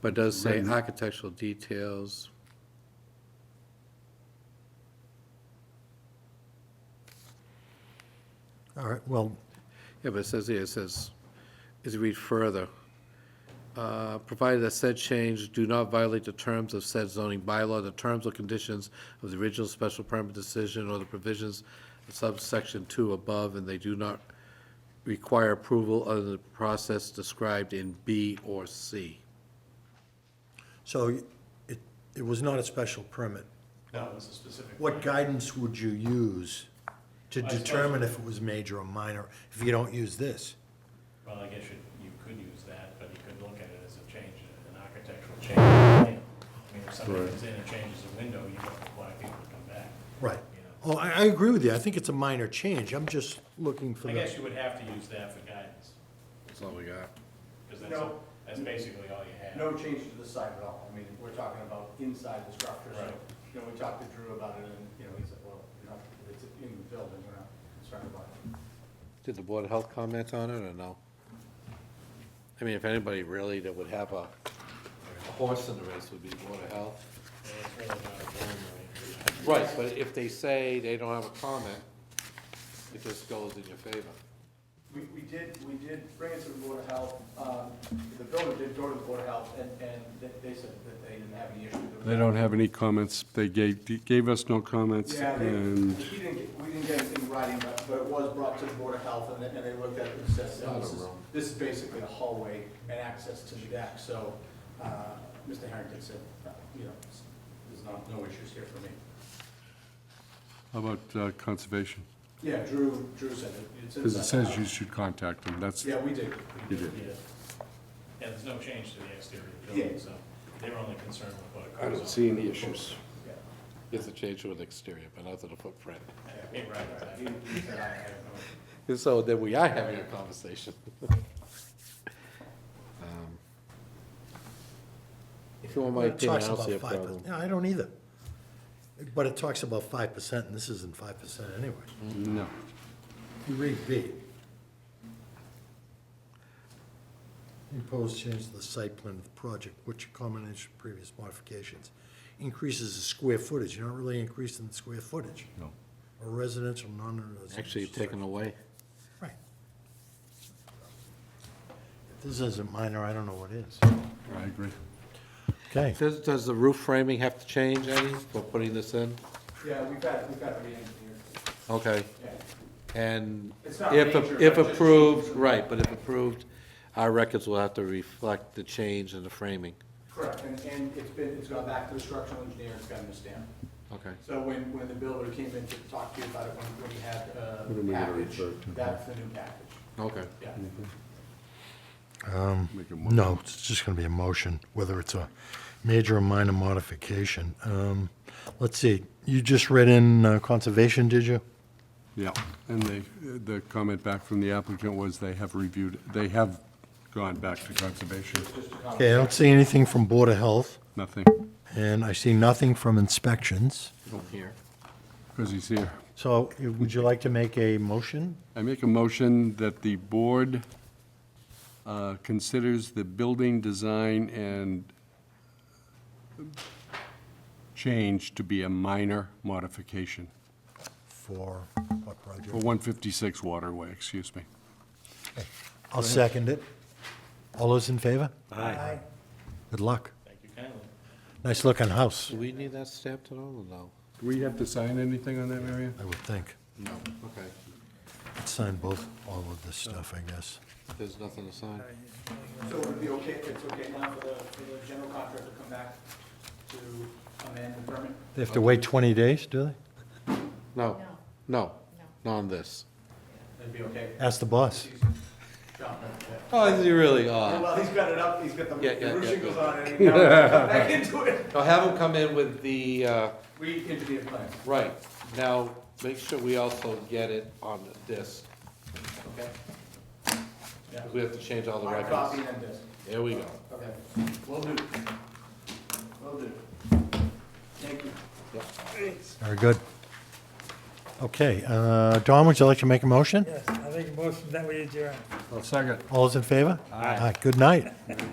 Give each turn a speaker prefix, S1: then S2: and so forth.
S1: But it does say architectural details.
S2: All right, well,
S1: Yeah, but it says here, it says, is read further. Uh, Provided that said change do not violate the terms of said zoning bylaw, the terms or conditions of the original special permit decision or the provisions of subsection two above, and they do not require approval under the process described in B or C.
S2: so it, it was not a special permit.
S3: No, it was a specific.
S2: What guidance would you use to
S3: I suppose-
S2: determine if it was major or minor, if you don't use this?
S3: Well, I guess you, you could use that, but you could look at it as a change, an architectural change. I mean, if somebody comes in and changes a window, you don't require people to come back.
S2: Right.
S3: You
S2: Oh,
S3: know.
S2: I, I agree with you, I think it's a minor change, I'm just looking for
S3: I
S2: the,
S3: guess you would have to use that for guidance,
S1: That's all we got.
S3: because that's,
S4: No.
S3: that's basically all you have.
S4: No change to the side at all. I mean, we're talking about inside the structure, so,
S3: Right.
S4: you know, we talked to Drew about it, and, you know, he said, well, you know, it's in the building, we're not concerned about it.
S1: Did the Board of Health comment on it or no? I mean, if anybody really that would have a a horse in the race would be Board of Health.
S3: And It's really not a boundary.
S1: Right, but if they say they don't have a comment, it just goes in your favor.
S4: We, we did, we did bring it to the Board of Health, um, the builder did go to the Board of Health, and, and they- they said that they didn't have any issue with it.
S5: They don't have any comments. They gave, gave us no comments,
S4: Yeah, they,
S5: and
S4: we didn't get, we didn't get anything in writing, but, but it was brought to the Board of Health, and they, and they looked at it and said,
S1: Not a
S4: this is,
S1: room.
S4: this is basically a hallway and access to the deck, so, uh, Mr. Harrington said, uh, you know, s- there's not, no issues here for me.
S5: how about uh, conservation?
S4: Yeah, Drew, Drew said it. It's
S5: Because it
S4: inside the
S5: says you
S4: house.
S5: should contact them. That's,
S4: Yeah, we did.
S5: You did.
S3: Yeah, Yeah, there's no change to the exterior of the building,
S4: Yeah.
S3: so they were only concerned with what
S1: I
S3: occurs on.
S1: don't see any issues.
S4: Yeah,
S1: You have to change to an exterior, but not to the footprint.
S3: Yeah, right, right.
S4: He, he said, I I have no.
S1: And so then we are having a conversation. Um, If you want my
S2: it
S1: opinion,
S2: talks
S1: I don't
S2: about
S1: see a
S2: five per-
S1: problem.
S2: Yeah, I don't either. But it talks about five percent, and this isn't five percent anyway.
S5: no.
S2: You read B. Imposed change to the site plan of the project, which a combination of previous modifications increases the square footage, you're not really increasing the square footage.
S5: No.
S2: Or residential, non-residential.
S1: Actually, taken away.
S2: structure. Right. If this isn't minor, I don't know what is.
S5: I agree.
S2: Okay.
S1: Does, does the roof framing have to change any for putting this in?
S4: Yeah, we've had, we've had a meeting here,
S1: Okay.
S4: yeah.
S1: And
S4: It's not
S1: if,
S4: major,
S1: if
S4: but just
S1: approved,
S4: change.
S1: right, but if approved, our records will have to reflect the change in the framing.
S4: Correct, and, and it's been, it's gone back to the structural engineer, it's gotten a stamp.
S1: Okay.
S4: So when, when the builder came in to talk to you about it, when, when you had, uh,
S5: What am I gonna
S4: package,
S5: refer to?
S4: that's the new package,
S1: Okay.
S4: yeah.
S5: Make a mo-
S2: No, it's just going to be a motion, whether it's a major or minor modification. Um, Let's see, you just read in uh, conservation, did you?
S5: Yeah, and they, the comment back from the applicant was they have reviewed, they have gone back to conservation.
S2: Okay, I don't see anything from Board of Health,
S5: Nothing,
S2: and I see nothing from inspections.
S1: From here.
S5: because he's here.
S2: So eh, would you like to make a motion?
S5: I make a motion that the board uh, considers the building design and change to be a minor modification
S2: For what
S5: for
S2: project?
S5: 156 Waterway, excuse me.
S2: I'll second it. All those in favor? Aye. Good luck.
S3: Thank you kindly.
S2: Nice looking house,
S1: Do we need that stamped at all, or no?
S5: Do we have to sign anything on that, Marion?
S2: I would think.
S1: No. Okay.
S2: Let's sign both, all of this stuff, I guess.
S1: There's nothing to sign.
S4: So would it be okay, if it's okay now for the, for the general contractor to come back to amend the permit?
S2: They have to wait 20 days, do they?
S1: No, no, not on this.
S4: That'd be okay?
S2: Ask the boss.
S4: John, yeah.
S1: Oh, this is really
S4: Yeah,
S1: odd.
S4: Well, he's got it up, he's got the,
S1: Yeah, yeah,
S4: the roof
S1: yeah,
S4: shingles
S1: good.
S4: on it, and he now he's come back into it.
S1: Now have them come in with the, uh,
S4: We interviewed plans,
S1: right, now, make sure we also get it on this.
S4: okay? Yeah.
S1: We have to change all the
S4: Hard copy
S1: records.
S4: and this.
S1: There we go.
S4: Okay, will do. Will do. Thank you.
S2: Very good. Okay, uh, Don, would you like to make a motion?
S6: Yes, I make a motion that we adjourn.
S5: I'll second.
S2: All those in favor? Aye. Good night.